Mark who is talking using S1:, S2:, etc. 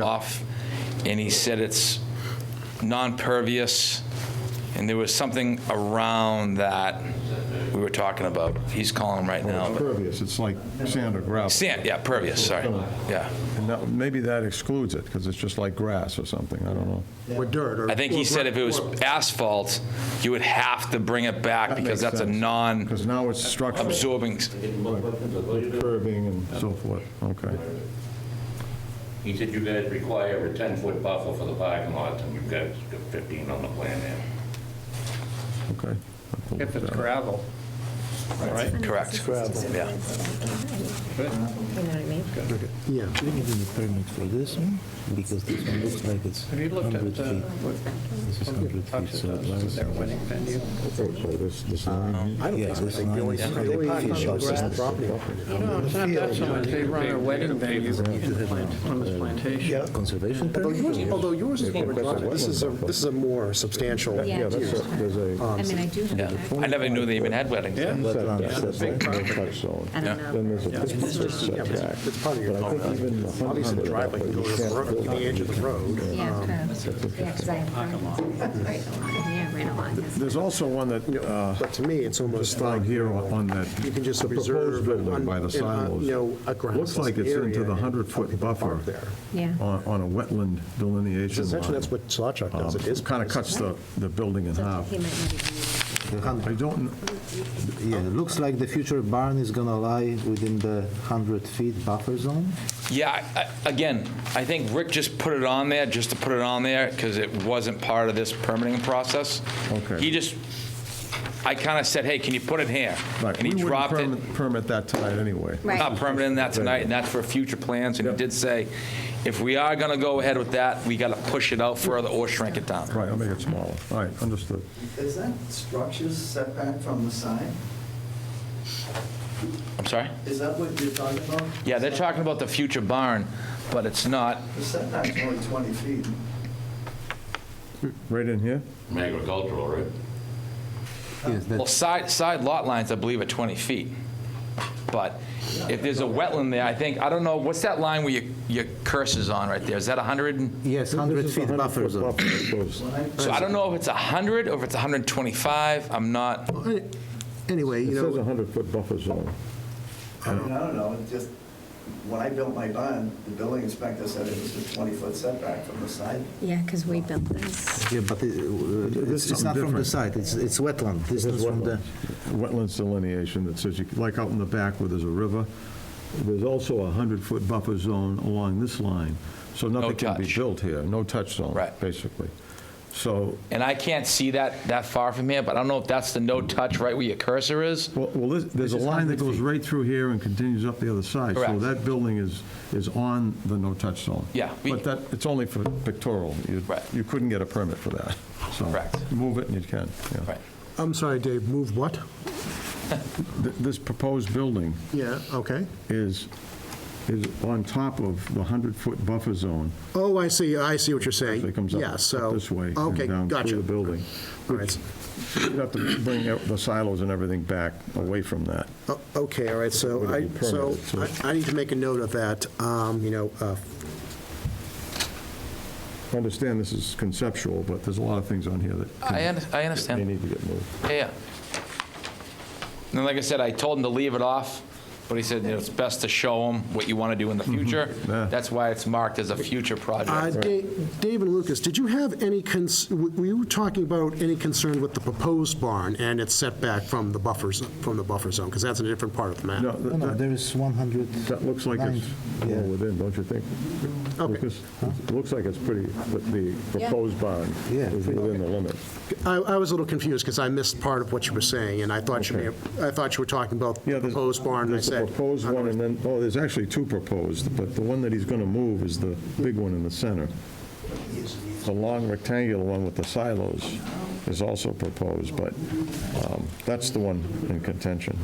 S1: off, and he said it's non-pervious, and there was something around that we were talking about. He's calling right now.
S2: It's
S1: but-
S2: pervious, it's like sand or gravel.
S1: Sand, yeah, pervious, sorry. Yeah.
S2: And that- maybe that excludes it, because it's just like grass or something, I don't know.
S3: With dirt or.
S1: I think he said if it was asphalt, you would have to bring it back because that's a non-absorbing.
S2: Because now it's structural, curbing and so forth, okay.
S4: He said you guys require a 10-foot buffer for the parking lots, and you've got 15 on the plan there.
S2: Okay.
S5: If it's gravel, right?
S1: Correct. Yeah.
S6: You know what I mean?
S7: Yeah, we need a permit for this one, because this one looks like it's
S5: Have you looked
S7: 100
S5: at uh,
S7: feet.
S5: what
S7: This is 100 feet,
S5: Tufts
S7: so
S5: does, their
S7: it's...
S5: wedding venue?
S3: I don't
S7: Yeah,
S3: think so. I
S7: this
S3: think they
S7: line
S3: only, they only
S7: is not
S3: park on the
S7: official, so
S3: grass
S7: it's-
S3: property.
S5: No, it's not that so much, they run their wedding venue in the plant, on this plantation.
S7: Conservation
S3: Although
S7: permit?
S3: yours, although yours is more, driveway. this is a, this is a more substantial.
S6: Yeah. Yeah, that's a-
S3: um,
S6: I mean, I do have
S1: Yeah.
S6: that.
S1: I never knew they even had weddings.
S5: Yeah.
S7: Wetland setback.
S6: I don't know.
S3: Yeah, but It's it's part of your, obviously the driveway can go to the road, to the edge of the road.
S6: Yeah, curves. Yeah, 'cause I have curves. Right along, yeah, right along. yes.
S2: There's also one that, uh,
S3: But to me, it's almost
S2: just down
S3: like,
S2: here on that,
S3: you can just
S2: the proposed
S3: reserve. an
S2: building
S3: un-
S2: by the
S3: an un- You
S2: silos.
S3: know, a grass.
S2: Looks like it's
S3: area
S2: into the
S3: and
S2: 100-foot
S3: people
S2: buffer
S3: park there.
S6: Yeah.
S2: on on a wetland delineation line.
S3: Essentially, that's what Sawchuck does, it is.
S2: Kind of cuts the, the building in
S6: So
S2: half.
S6: he might not even need it.
S2: I don't,
S7: Yeah, it looks like the future barn is gonna lie within the 100 feet buffer zone.
S1: Yeah, I- I- again, I think Rick just put it on there, just to put it on there, because it wasn't part of this permitting process.
S2: Okay.
S1: He just, I kind of said, hey, can you put it here?
S2: right,
S1: And
S2: we
S1: he
S2: wouldn't
S1: dropped it.
S2: permit- permit that tonight anyway.
S6: Right.
S1: Not permitting that tonight, and that's for future plans, and he
S2: Yep.
S1: did say, if we are going to go ahead with that, we got to push it out further or shrink it down.
S2: Right, I'll make it smaller. All right, understood.
S8: Is that structures setback from the side?
S1: I'm sorry?
S8: Is that what you're talking about?
S1: Yeah, they're talking about the future barn, but it's not,
S8: The setback's only 20 feet.
S2: Right in here?
S4: Agricultural, right?
S7: Yes,
S1: well,
S7: that's
S1: side, side lot lines, I believe, are 20 feet. But if there's a wetland there, I think, I don't know, what's that line where your, your cursor's on right there? Is that 100? and-
S7: yes, 100 feet buffer zone.
S1: So I don't know if it's 100 or if it's 125, I'm not,
S3: Anyway, you
S2: It says
S3: know,
S2: 100-foot buffer zone.
S8: I mean, I don't know, it just, when I built my barn, the building inspector said it was a 20-foot setback from the side.
S6: Yeah, because we built this.
S7: Yeah, but it- uh, it's it's not from the side, it's it's wetland. This is from the...
S2: Wetlands delineation that says, you like out in the back where there's a river, there's also a 100-foot buffer zone along this line. So nothing can be
S1: touch.
S2: built here, no touch zone,
S1: Right.
S2: basically. So,
S1: and I can't see that, that far from here, but I don't know if that's the no-touch right where your cursor is.
S2: well- well, this- there's a
S1: This is
S2: line
S1: 100
S2: that goes
S1: feet.
S2: right through here and continues up the other side. So
S1: Correct.
S2: that building is, is on the no-touch zone.
S1: Yeah, we-
S2: But that, it's only for pictorial. You-
S1: Right.
S2: You couldn't get a permit for that. So
S1: Correct.
S2: Move it and you can, yeah.
S1: Right.
S3: I'm sorry, Dave, move what?
S2: Th- This proposed building
S3: Yeah, okay.
S2: is, is on top of the 100-foot buffer zone.
S3: Oh, I see, I see what you're saying.
S2: So it comes up
S3: Yeah,
S2: up
S3: so-
S2: this way
S3: Okay,
S2: and down
S3: gotcha.
S2: through the building.
S3: All right.
S2: You'd have to bring out the silos and everything back away from that.
S3: O- Okay, all right, so
S2: Would it
S3: I,
S2: be
S3: so
S2: permitted, so-
S3: I- I need to make a note of that, um, you know, uh,
S2: I understand this is conceptual, but there's a lot of things on here that
S1: I,
S2: can-
S1: un- I understand.
S2: they need to get moved.
S1: Yeah, Yeah. And then, like I said, I told him to leave it off, but he said, you know, it's best to show him what you want to do in the future.
S2: Yeah.
S1: That's why it's marked as a future
S3: Uh,
S1: project.
S3: Da- Dave and Lucas, did you have any, cons- w- were you talking about any concern with the proposed barn and its setback from the buffers, from the buffer zone? Because that's in a different part of the
S2: No,
S3: map.
S7: No,
S2: th-
S7: no,
S2: that-
S7: there is 100...
S2: that looks like it's
S7: Yeah.
S2: well within, don't you think?
S3: Okay.
S2: Lucas, it looks like it's pretty, but the proposed barn
S7: Yeah.
S2: is within the limit.
S3: I I was a little confused because I missed part of what you were saying, and I thought you, may have- I thought you were talking about
S2: Yeah,
S3: the
S2: there's-
S3: proposed barn, and I
S2: There's the
S3: said.
S2: proposed one, and then, oh, there's actually two proposed, but the one that he's going to move is the big one in the center. The long rectangular one with the silos is also proposed, but um, that's the one in contention.